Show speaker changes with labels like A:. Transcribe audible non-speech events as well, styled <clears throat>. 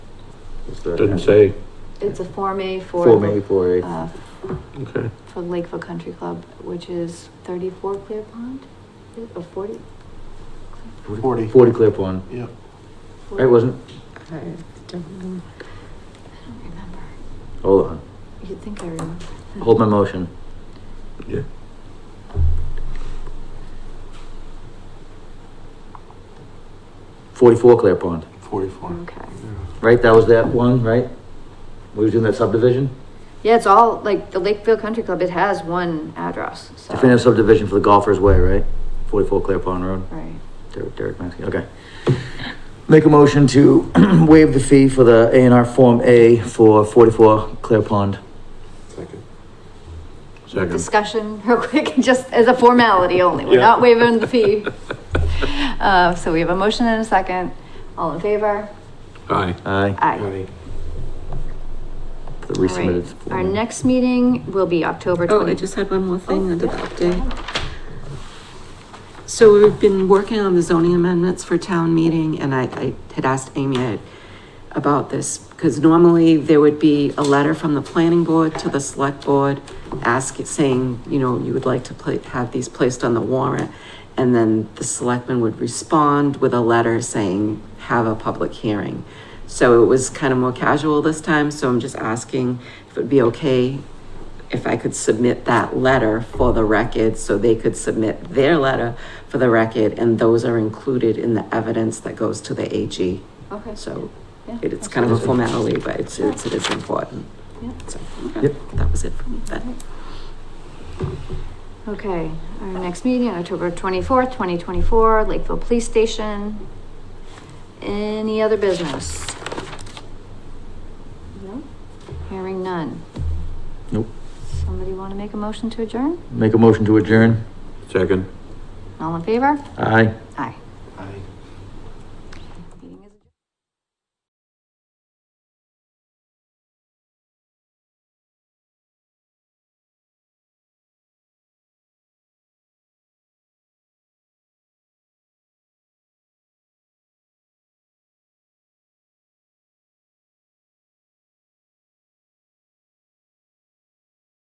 A: Is the-
B: Doesn't say,
C: It's a Form A for.
A: Form A, four A.
C: uh,
B: okay.
C: For Lakeville Country Club, which is thirty-four Clear Pond, or forty?
D: Forty.
A: Forty Clear Pond,
D: Yep.
A: right, wasn't,
E: I don't
C: I
E: know.
C: don't remember.
A: hold on,
C: You'd think I remember.
A: hold my motion.
B: Yeah.
A: Forty-four Clear Pond,
D: Forty-four.
C: Okay.
A: right, that was that one, right? We was doing that subdivision,
C: Yeah, it's all, like, the Lakeville Country Club, it has one address, so.
A: definitive subdivision for the Golfers Way, right? Forty-four Clear Pond Road.
C: Right.
A: Derek, Derek Maxey, okay. Make a motion to <clears throat> waive the fee for the A and R Form A for forty-four Clear Pond.
D: Second.
B: Second.
C: Discussion <laughs> real quick, just as a formality only, we're
B: Yeah.
C: not waiving
B: <laughs>
C: the fee. Uh, so we have a motion and a second, all in favor?
B: Aye.
A: Aye,
C: Aye.
A: for the
C: All right.
A: resubmitted.
C: Our
A: form.
C: next meeting will be October
E: Oh, I
C: twenty.
E: just had one more
C: Oh,
E: thing under the
C: yeah.
E: update. So we've been working on the zoning amendments for town meeting and I, I had asked Amy I- about this. Cause normally there would be a letter from the planning board to the select board ask, saying, you know, you would like to pla- have these placed on the warrant. And then the selectman would respond with a letter saying, have a public hearing. So it was kind of more casual this time, so I'm just asking if it'd be okay if I could submit that letter for the record, so they could submit their letter for the record, and those are included in the evidence that goes to the AG.
C: Okay.
E: So
C: Yeah,
E: it- it's kind of a formality, but it's, it's, it is important.
C: Yeah.
E: So, okay.
A: Yep.
E: That was it for me then.
C: Okay, our next meeting, October twenty-fourth, twenty twenty-four, Lakeville Police Station. Any other business? No? Hearing none.
A: Nope.
C: Somebody wanna make a motion to adjourn?
A: Make a motion to adjourn.
B: Second.
C: All in favor?
A: Aye.
C: Aye.